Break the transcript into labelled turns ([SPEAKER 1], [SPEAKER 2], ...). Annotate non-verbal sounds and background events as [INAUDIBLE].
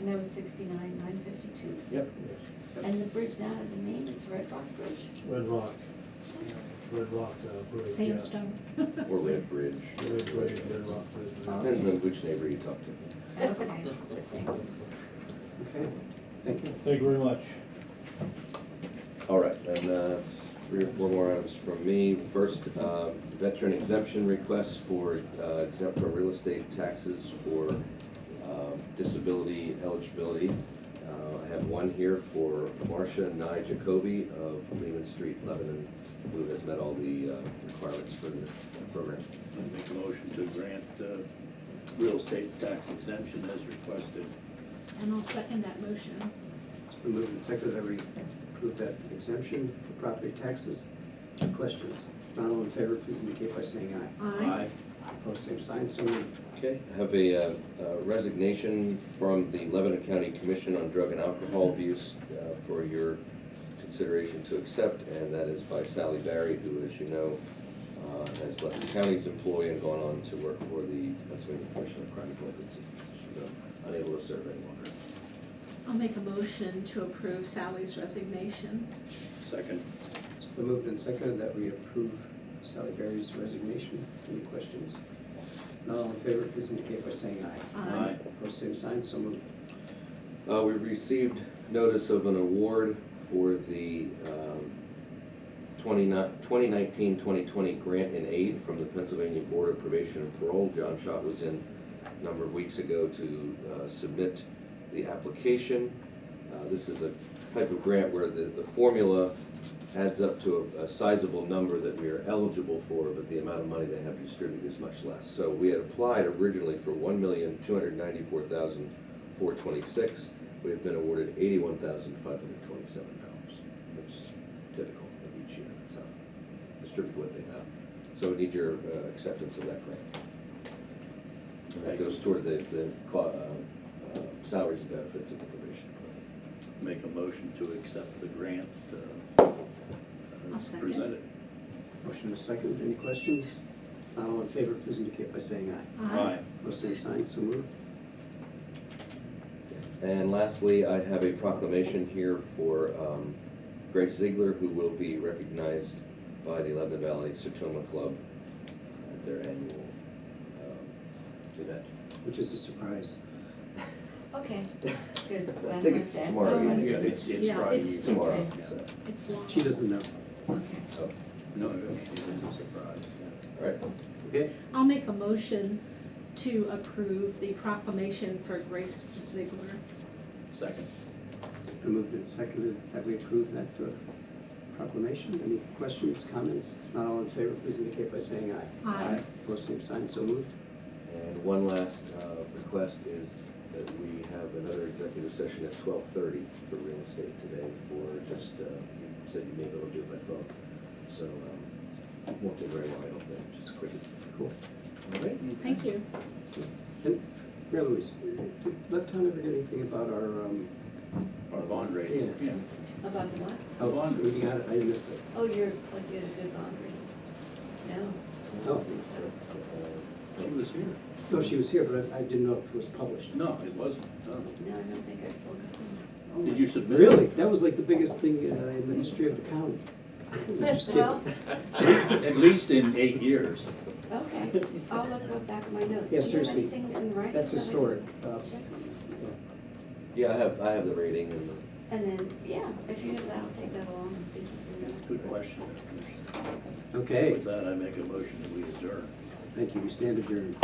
[SPEAKER 1] and that was sixty-nine, nine fifty-two.
[SPEAKER 2] Yep,
[SPEAKER 1] And the bridge now has a name, it's Red Rock Bridge,
[SPEAKER 2] Red Rock, Red Rock, uh, Bridge. yeah.
[SPEAKER 1] sandstone.
[SPEAKER 3] or Red Bridge,
[SPEAKER 2] Red Bridge, Red Rock Bridge. yeah.
[SPEAKER 3] depends on which neighbor you talk to.
[SPEAKER 1] Okay, thank you.
[SPEAKER 4] Okay, thank you.
[SPEAKER 2] Thank you very much.
[SPEAKER 3] All right, and uh, three or four more items from me. First, uh, veteran exemption requests for uh, exempt from real estate taxes for um, disability eligibility. Uh, I have one here for Marcia Nye Jacoby of Lehman Street, Lebanon, who has met all the uh, requirements for the program.
[SPEAKER 5] I make a motion to grant uh, real estate tax exemption as requested.
[SPEAKER 6] And I'll second that motion.
[SPEAKER 4] It's been moved and seconded that we approve that exemption for property taxes. Questions? If Not all in favor, please indicate by saying aye.
[SPEAKER 6] Aye.
[SPEAKER 4] Opposed, same sign, so moved.
[SPEAKER 3] Okay, I have a uh, uh, resignation from the Lebanon County Commission on Drug and Alcohol Abuse uh, for your consideration to accept, and that is by Sally Barry, who, as you know, uh, has left the county's employ and gone on to work for the Pennsylvania Commission on Crime Prevention. She's uh, unable to serve any longer.
[SPEAKER 6] I'll make a motion to approve Sally's resignation.
[SPEAKER 5] Second.
[SPEAKER 4] It's been moved and seconded that we approve Sally Berry's resignation. Any questions? If Not all in favor, please indicate by saying aye.
[SPEAKER 6] Aye.
[SPEAKER 4] Opposed, same sign, so moved.
[SPEAKER 3] Uh, we received notice of an award for the, um, 2019-2020 grant and aid from the Pennsylvania Board of Probation and Parole. John Schott was in a number of weeks ago to uh, submit the application. Uh, This is a type of grant where the, the formula adds up to a- a sizable number that we are eligible for, but the amount of money they have distributed is much less. So we had applied originally for one million, two hundred ninety-four thousand, four twenty-six. We have been awarded eighty-one thousand, five hundred twenty-seven dollars, which is typical of each year, so distribute what they have. So we need your uh, acceptance of that grant. And That goes toward the, the co- uh, uh, salaries and benefits of the probation.
[SPEAKER 5] Make a motion to accept the grant uh,
[SPEAKER 6] I'll
[SPEAKER 5] as
[SPEAKER 6] second.
[SPEAKER 5] presented.
[SPEAKER 4] Motion is seconded. Any questions? If Not all in favor, please indicate by saying aye. Opposed, same sign, so moved.
[SPEAKER 3] And lastly, I have a proclamation here for um, Greg Ziegler, who will be recognized by the Lebanon Valley Sertoma Club at their annual um, event.
[SPEAKER 4] Which is a surprise.
[SPEAKER 1] Okay,
[SPEAKER 3] [LAUGHS]
[SPEAKER 1] good.
[SPEAKER 3] I think it's tomorrow
[SPEAKER 1] Oh, I
[SPEAKER 3] evening.
[SPEAKER 1] see.
[SPEAKER 3] Yeah,
[SPEAKER 5] It's, it's
[SPEAKER 6] Yeah,
[SPEAKER 5] Friday.
[SPEAKER 6] it's-
[SPEAKER 3] It's tomorrow, so,
[SPEAKER 6] It's long.
[SPEAKER 4] She doesn't know.
[SPEAKER 1] Okay.
[SPEAKER 3] so,
[SPEAKER 5] Oh, No, it was a surprise.
[SPEAKER 3] all right.
[SPEAKER 4] Okay.
[SPEAKER 6] I'll make a motion to approve the proclamation for Grace Ziegler.
[SPEAKER 5] Second.
[SPEAKER 4] It's been moved and seconded that we approve that uh, proclamation. Any questions, comments? If Not all in favor, please indicate by saying aye.
[SPEAKER 6] Aye. Aye.
[SPEAKER 4] Opposed, same sign, so moved.
[SPEAKER 3] And one last uh, request is that we have another executive session at twelve thirty for real estate today for just, uh, you said you may be able to do it by phone. So, um, won't take very long, I don't think, just quick.
[SPEAKER 4] Cool.
[SPEAKER 3] All right.
[SPEAKER 6] Thank you.
[SPEAKER 4] And Mary Louise, did Lepton ever get anything about our, um,
[SPEAKER 5] Our bond rating.
[SPEAKER 4] Yeah.
[SPEAKER 1] About the what?
[SPEAKER 4] how long we got it? I missed it.
[SPEAKER 1] Oh, you're, oh, you had a good laundry. No. I don't
[SPEAKER 4] Oh.
[SPEAKER 1] think so.
[SPEAKER 5] She was here.
[SPEAKER 4] No, she was here, but I I didn't know if it was published.
[SPEAKER 5] No, it wasn't. No.
[SPEAKER 1] No, I don't think I focused on
[SPEAKER 5] Did you submit? it?
[SPEAKER 4] Oh, Really? That was like the biggest thing uh, in the history of the county.
[SPEAKER 1] that. Well,
[SPEAKER 5] At least in eight years.
[SPEAKER 1] okay,
[SPEAKER 4] [LAUGHS]
[SPEAKER 1] I'll look up back at my notes.
[SPEAKER 4] Yeah, seriously.
[SPEAKER 1] Do you have anything in writing?
[SPEAKER 4] That's
[SPEAKER 1] that I can
[SPEAKER 4] historic. Uh,
[SPEAKER 1] check on?
[SPEAKER 3] Yeah, I have, I have the rating and the.
[SPEAKER 1] And then, yeah, if you have that, I'll take that along and do something with it.
[SPEAKER 5] Good question.
[SPEAKER 4] Okay,
[SPEAKER 5] With that, I make a motion that we adjourn.
[SPEAKER 4] thank you. We stand adjourned.